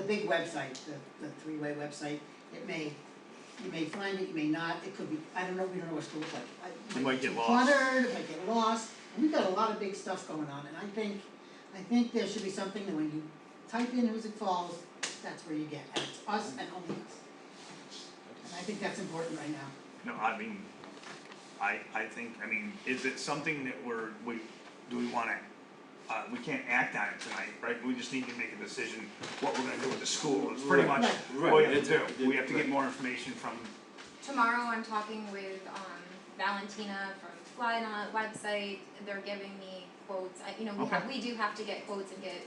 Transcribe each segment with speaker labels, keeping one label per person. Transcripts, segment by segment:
Speaker 1: big website, the, the three-way website, it may, you may find it, you may not, it could be, I don't know, we don't know what to look like. I-
Speaker 2: You might get
Speaker 1: be
Speaker 2: lost.
Speaker 1: Cluttered, it might get lost, we've got a lot of big stuff going on, and I think, I think there should be something that when you type in Who's It Falls, that's where you get, and it's us and only us. And I think that's important right now.
Speaker 2: No, I mean, I, I think, I mean, is it something that we're, we, do we wanna, uh, we can't act on it tonight, right? We just need to make a decision what we're gonna do with the school, it's pretty
Speaker 3: Right,
Speaker 2: much
Speaker 3: right,
Speaker 2: what we have to
Speaker 3: it's-
Speaker 2: do. We have to get
Speaker 3: right.
Speaker 2: more information from,
Speaker 4: Tomorrow I'm talking with um Valentina from Flynot website, they're giving me quotes, I, you know, we have, we do have to get quotes and get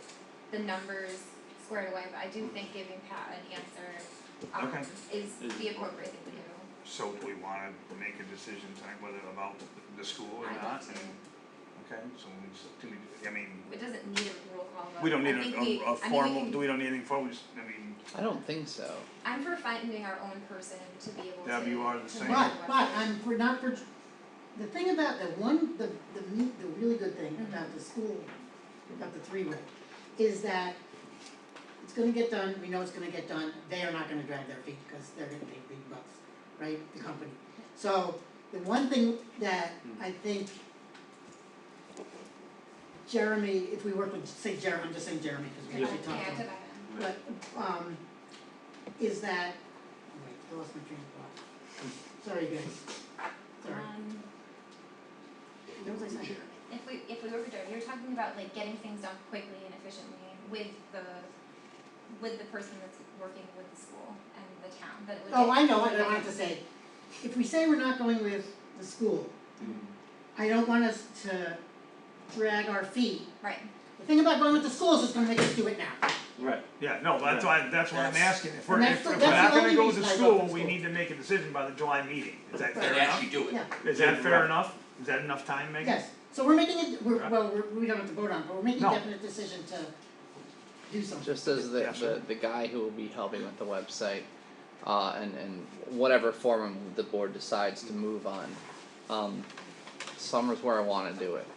Speaker 4: the numbers squared away, but I do think giving Pat an answer um
Speaker 2: Okay.
Speaker 4: is
Speaker 3: Is
Speaker 4: the appropriate thing to do.
Speaker 2: so do we wanna make a decision tonight whether about the school or
Speaker 4: I'd like
Speaker 2: not?
Speaker 4: to.
Speaker 2: And- Okay, so we just, do we, I mean,
Speaker 4: It doesn't need a roll call vote.
Speaker 2: we don't
Speaker 4: I
Speaker 2: need
Speaker 4: think
Speaker 2: a,
Speaker 4: we-
Speaker 2: a, a
Speaker 4: I mean, we
Speaker 2: formal,
Speaker 4: can-
Speaker 2: do we don't need anything formal, We just, I mean,
Speaker 5: I don't think so.
Speaker 4: I'm for finding our own person to be able to.
Speaker 2: Deb, you are the
Speaker 4: to
Speaker 2: same.
Speaker 4: run
Speaker 1: But,
Speaker 4: the
Speaker 1: but
Speaker 4: website.
Speaker 1: I'm, we're not, for- the thing about the one, the, the me the really good thing about the school, about the three-way, is that it's gonna get done, we know it's gonna get done, they are not gonna drag their feet, because they're gonna pay big bucks, right, the company. So, the one thing that
Speaker 2: Mm.
Speaker 1: I think Jeremy, if we work with, say Jeremy, I'm just saying Jeremy, because we
Speaker 4: Yeah,
Speaker 1: actually talked to him
Speaker 4: to that.
Speaker 1: but um is that, wait, I lost my train of thought. Sorry guys, sorry,
Speaker 4: Um,
Speaker 1: What was I saying?
Speaker 4: if we, if we were to, you're talking about like getting things done quickly and efficiently with the, with the person that's working with the school and the town, that it would.
Speaker 1: Oh,
Speaker 4: get-
Speaker 1: I know, what I don't have to say, if we say we're not going with the school, I don't want us to drag our feet.
Speaker 4: Right,
Speaker 1: The thing about going with the school is it's gonna make us do it now,
Speaker 3: Right,
Speaker 2: yeah, no, that's why, that's what I'm
Speaker 6: That's-
Speaker 2: asking, if we're,
Speaker 1: And that's
Speaker 2: if
Speaker 1: the-
Speaker 2: if we're
Speaker 1: that's the
Speaker 2: not gonna
Speaker 1: only
Speaker 2: go with the
Speaker 1: reason I go to
Speaker 2: school, we
Speaker 1: school.
Speaker 2: need to make a decision by the July meeting, is that fair enough?
Speaker 6: And actually do it.
Speaker 1: yeah,
Speaker 2: Is that fair enough? Is that enough time, Megan?
Speaker 1: yes, so we're making it, we're,
Speaker 2: Right.
Speaker 1: well, we're, we don't have to vote on, it, but we're making a
Speaker 2: No.
Speaker 1: definite decision to do something.
Speaker 5: Just as the,
Speaker 2: Yeah, sure.
Speaker 5: the, the guy who will be helping with the website, uh, and, and whatever forum the board decides to move on, um, summer's where I wanna do it.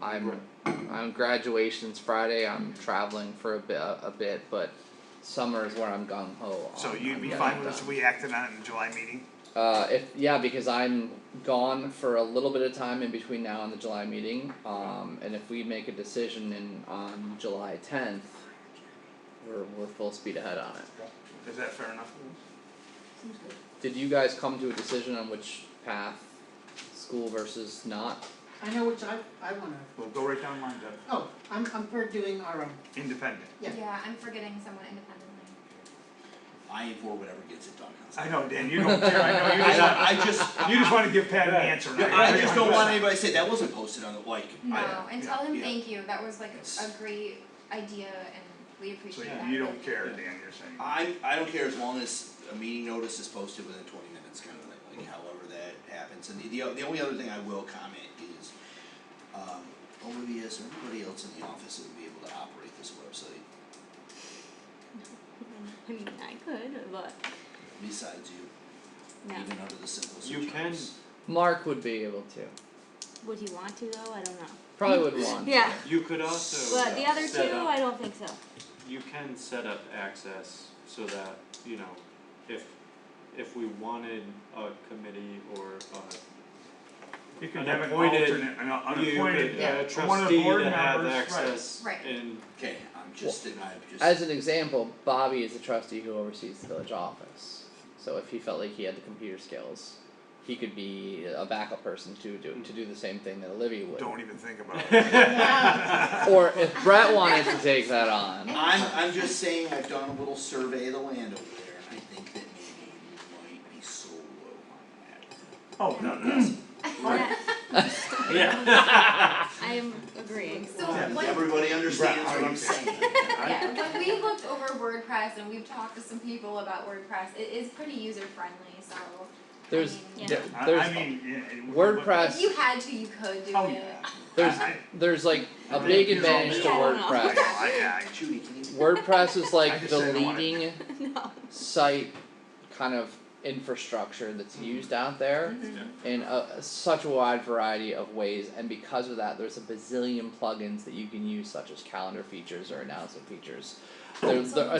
Speaker 5: I'm, I'm graduation's Friday, I'm traveling for a bit, a bit, but summer is where I'm gung ho on,
Speaker 2: So you'd
Speaker 5: on
Speaker 2: be
Speaker 5: getting
Speaker 2: fine
Speaker 5: it
Speaker 2: with us, if
Speaker 5: done.
Speaker 2: we acted on it in the July meeting?
Speaker 5: Uh, if yeah, because I'm gone for a little bit of time in between now and the July meeting. Um, and if we make a decision in on July tenth, we're we're full speed ahead on it.
Speaker 2: Is that fair enough?
Speaker 1: Seems good.
Speaker 5: Did you guys come to a decision on which path, school versus not?
Speaker 1: I know which I, I wanna,
Speaker 2: We'll go right down the line, Deb.
Speaker 1: oh, I'm, I'm for doing our own,
Speaker 2: Independent.
Speaker 1: Yeah.
Speaker 4: yeah, I'm forgetting someone independently.
Speaker 6: I am for whatever gets it done. How's that?
Speaker 2: I know, Dan, you don't care, I know, you just, want-
Speaker 6: I, I just.
Speaker 2: you just wanna give Pat an answer, right?
Speaker 6: I just don't Hmm. want anybody to say that wasn't posted on the like. I-
Speaker 4: No, and tell him
Speaker 6: yeah.
Speaker 4: thank you, that was like a
Speaker 6: Yes.
Speaker 4: great idea and we
Speaker 2: So
Speaker 4: appreciate that.
Speaker 2: you, you
Speaker 4: but-
Speaker 2: don't care, Dan, you're saying.
Speaker 6: I, I don't care as long as a meeting notice is posted within twenty minutes, kind of like, like however that happens. And the, the, the only other thing I will comment is, um, Olivia, is there anybody else in the office that would be able to operate this website
Speaker 7: I mean, I could, but
Speaker 6: besides you,
Speaker 7: no.
Speaker 6: even under the simplest of
Speaker 3: You can-
Speaker 6: terms?
Speaker 5: Mark would be able to.
Speaker 7: Would you want to though? I don't know.
Speaker 5: Probably would want. to.
Speaker 7: Yeah.
Speaker 3: you could also
Speaker 7: But the other
Speaker 3: set
Speaker 7: two,
Speaker 3: up-
Speaker 7: I don't think so.
Speaker 3: you can set up access so that, you know, if, if we wanted a committee or a,
Speaker 2: You can
Speaker 3: An
Speaker 2: have an
Speaker 3: appointed-
Speaker 2: alternate, an
Speaker 3: you
Speaker 2: unappointed,
Speaker 3: could,
Speaker 1: yeah,
Speaker 3: a
Speaker 2: one of the
Speaker 3: trustee
Speaker 2: board
Speaker 3: to have
Speaker 2: members, right.
Speaker 3: access
Speaker 4: Right.
Speaker 3: in,
Speaker 6: Okay, I'm just, I'm just.
Speaker 5: As an example, Bobby is a trustee who oversees the village office. So if he felt like he had the computer skills, he could be a backup person to do to do the same thing that Olivia would.
Speaker 2: don't even think about it.
Speaker 5: Or if Brett wanted to take that on.
Speaker 6: I'm, I'm just saying, I've done a little survey of the land over there, and I think that maybe we might be so low on
Speaker 2: Oh, no, no.
Speaker 7: Yeah,
Speaker 3: yeah.
Speaker 7: I'm agreeing.
Speaker 4: So
Speaker 6: that.
Speaker 2: Yeah,
Speaker 4: what
Speaker 6: Does everybody understand
Speaker 2: Right,
Speaker 6: what
Speaker 2: I'm
Speaker 6: I'm saying?
Speaker 4: Yeah, when we looked over WordPress and we've talked to some people about WordPress, it is pretty user friendly, so. I
Speaker 5: There's
Speaker 4: mean,
Speaker 7: Yeah.
Speaker 5: there-
Speaker 2: I, I
Speaker 5: there's
Speaker 2: mean, yeah, it-
Speaker 4: If you
Speaker 5: WordPress.
Speaker 4: had to, you could do it.
Speaker 2: Oh, yeah.
Speaker 5: There's
Speaker 2: I-
Speaker 5: there's like a
Speaker 2: I
Speaker 5: big
Speaker 2: think there's all-
Speaker 5: advantage to
Speaker 7: Yeah, I don't
Speaker 2: I,
Speaker 7: know.
Speaker 5: WordPress.
Speaker 2: I, I,
Speaker 6: Judy, can you?
Speaker 5: WordPress is
Speaker 2: I
Speaker 5: like
Speaker 2: just
Speaker 5: the
Speaker 2: said I don't want it.
Speaker 5: leading
Speaker 7: No.
Speaker 5: site kind of infrastructure that's used out there.
Speaker 4: Mhm.
Speaker 5: in a, such a wide variety of ways, and because of that, there's a bazillion plugins that you can use, such as calendar features or announcement features. There, there,